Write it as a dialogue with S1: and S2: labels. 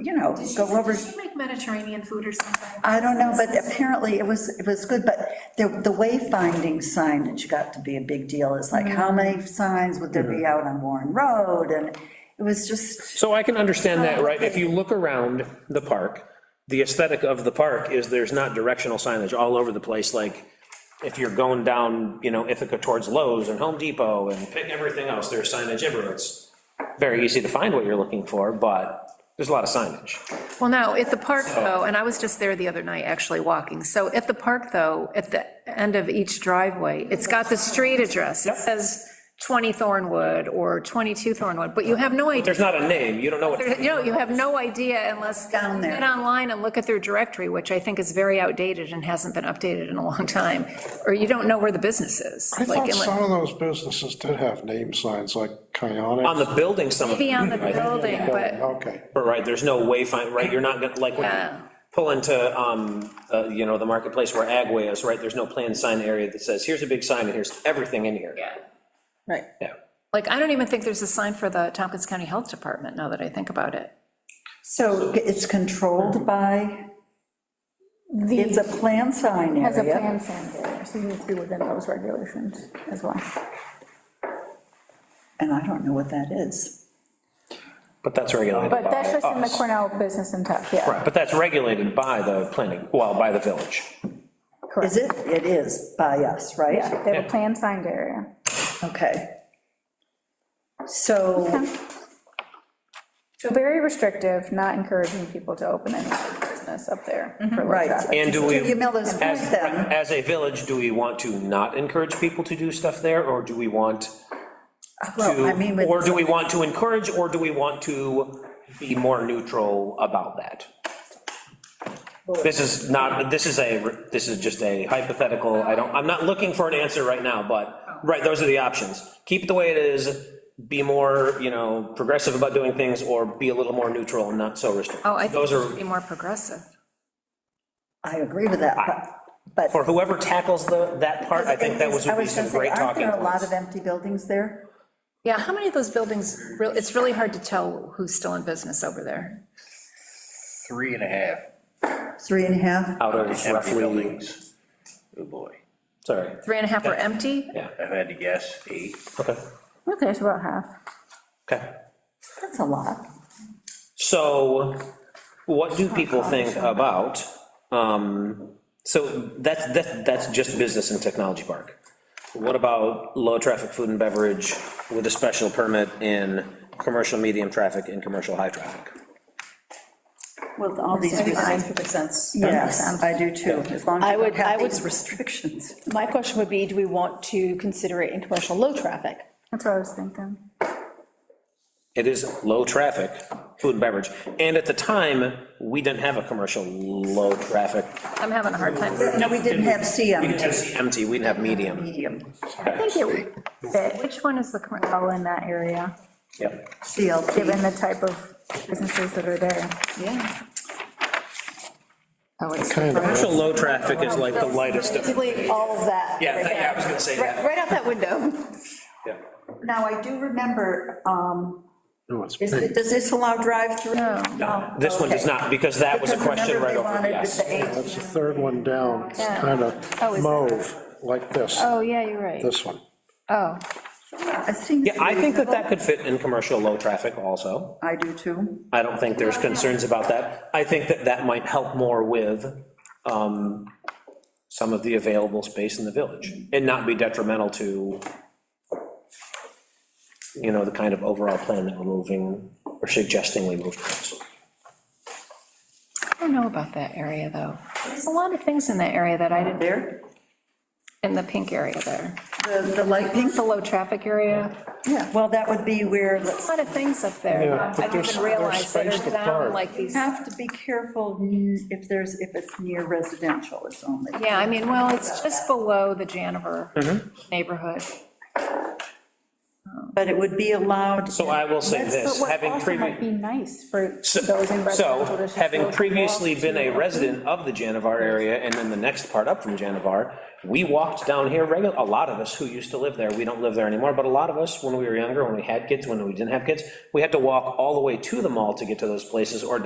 S1: you know,
S2: Did she-
S1: go over.
S2: Did she make Mediterranean food or something?
S1: I don't know, but apparently it was, it was good, but the, the wayfinding signage got to be a big deal. It's like,
S3: Mm-hmm.
S1: how many signs would there be out on Warren Road? And it was just,
S4: So I can understand that, right? If you look around the park, the aesthetic of the park is there's not directional signage all over the place, like if you're going down, you know, Ithaca towards Lowe's and Home Depot and pick everything else, there's signage everywhere. It's very easy to find what you're looking for, but there's a lot of signage.
S2: Well, no, at the park, though, and I was just there the other night, actually walking. So at the park, though, at the end of each driveway, it's got the street address. It says 20 Thornwood or 22 Thornwood, but you have no idea.
S4: There's not a name, you don't know what.
S2: You know, you have no idea unless.
S1: Down there.
S2: Get online and look at their directory, which I think is very outdated and hasn't been updated in a long time, or you don't know where the business is.
S5: I
S2: Like,
S5: thought
S2: unless-
S5: some of those businesses did have name signs, like Kionic.
S4: On the building, some of
S2: Maybe on the building, but.
S5: Okay,
S4: But right, there's no wayfind, right, you're not gonna, like, when
S2: Yeah.
S4: you pull into, um, uh, you know, the marketplace where Agway is, right, there's no planned sign area that says, here's a big sign, and here's everything in here.
S2: Yeah.
S3: Right.
S4: Yeah.
S2: Like, I don't even think there's a sign for the Tompkins County Health Department, now that I think about it.
S1: so it's controlled by, it's a
S3: The,
S1: plan sign
S3: has a
S1: area.
S3: plan signed there, so you need to be within those regulations as well.
S1: And I don't know what that is.
S4: But that's regulated by
S3: But that's just in the
S4: us.
S3: Cornell Business and Tech, yeah.
S4: Right, but that's regulated by the planning, well, by the village.
S1: Is it? It is by us, right?
S3: Yeah, They have a plan signed area.
S1: Okay. So,
S3: So very restrictive, not encouraging people to open any business up there for low
S1: Right.
S3: traffic.
S4: Mm-hmm. And do we,
S1: you mail those
S4: as,
S1: points then?
S4: as a village, do we want to not encourage people to do stuff there, or do we want
S1: Uh, well, I mean,
S4: to,
S1: with-
S4: or do we want to encourage, or do we want to be more neutral about that? This is not, this is a, this is just a hypothetical, I don't, I'm not looking for an answer right now, but, right, those are the options. Keep it the way it is, be more, you know, progressive about doing things, or be a little more neutral and not so restrictive.
S2: Oh, I think it
S4: Those
S2: should
S4: are,
S2: be more progressive.
S1: I agree with that, but. but
S4: for whoever tackles the, that part, I think that was, would be some
S1: gonna say,
S4: great talking
S1: Aren't there a lot
S4: points.
S1: of empty buildings there?
S2: Yeah, how many of those buildings, real- it's really hard to tell who's still in business over there.
S6: three and a half
S1: Three and a half?
S4: Out of
S6: empty
S4: roughly,
S6: buildings. Oh, boy.
S4: sorry,
S2: Three and a half are empty?
S6: I've had to guess eight.
S4: okay,
S3: Okay, it's about half.
S4: okay.
S1: That's a lot.
S4: So what do people think about, um, so that's, that's, that's just business and technology park. What about low-traffic food and beverage with a special permit in commercial medium traffic and commercial high traffic?
S1: With all these restrictions.
S7: sense.
S1: Yes, I do too, as long as
S7: I
S1: you don't
S7: would- I
S1: have
S7: would-
S1: these restrictions.
S7: My question would be, do we want to consider it in commercial low traffic?
S3: That's what I was thinking.
S4: It is low-traffic food and beverage, and at the time, we didn't have a commercial low-traffic.
S2: I'm having a hard time.
S1: No, we didn't have
S4: We didn't
S1: CM,
S4: have empty, we didn't have medium.
S1: medium,
S3: I think it would fit
S2: Which one is the correct?
S3: well in that area,
S4: Yep.
S1: CLT.
S3: given the type of businesses that are there.
S2: Yeah. Oh, it's,
S5: kind of.
S4: Commercial low-traffic is like the lightest of.
S7: Basically, all of that.
S4: Yeah, yeah,
S7: right
S4: I
S7: there.
S4: was gonna say
S7: Right-
S4: that.
S7: Right out that window.
S4: Yeah.
S1: Now, I do remember, um,
S5: No, it's
S1: is
S5: big.
S1: it- does this allow drive-through?
S2: No.
S1: No,
S4: This one does
S1: okay.
S4: not, because that was a
S1: Because
S4: question
S1: remember
S4: right
S1: they
S4: over,
S1: wanted
S4: yes.
S1: the eight-
S5: That's the third one down, it's kind
S2: Oh,
S5: of
S2: is that-
S5: mauve, like this,
S2: oh, yeah, you're right.
S5: this one.
S2: Oh,
S1: I think.
S4: Yeah, I think that that could fit in commercial low traffic also.
S1: I do too.
S4: I don't think there's concerns about that. I think that that might help more with um, some of the available space in the village and not be detrimental to, you know, the kind of overall plan that we're moving or suggesting we move towards.
S2: I don't know about that area, though. There's a lot of things in that area that I didn't,
S1: There,
S2: in the pink area there.
S1: the, the light pink,
S2: The low-traffic area.
S1: yeah, well, that would be where,
S2: A lot of things up there.
S5: Yeah,
S2: I
S5: but
S2: didn't
S5: there's-
S2: even
S5: there's
S2: realize that
S5: space
S2: are
S5: to
S2: down
S5: park.
S2: like these.
S1: you have to be careful n- if there's, if it's near residential, it's only.
S2: Yeah, I mean, well, it's just below the Janiver
S4: Mm-hmm.
S2: neighborhood.
S1: But it would be allowed.
S4: So I will say
S3: That's-
S4: this,
S3: but what
S4: having
S3: also
S4: previous.
S3: Might be nice for those in
S4: So,
S3: residential
S4: so,
S3: districts.
S4: having
S3: those
S4: previously been a
S3: walk to-
S4: resident of the Janivar area, and then the next part up from Janivar, we walked down here regular, a lot of us who used to live there, we don't live there anymore, but a lot of us, when we were younger, when we had kids, when we didn't have kids, we had to walk all the way to the mall to get to those places, or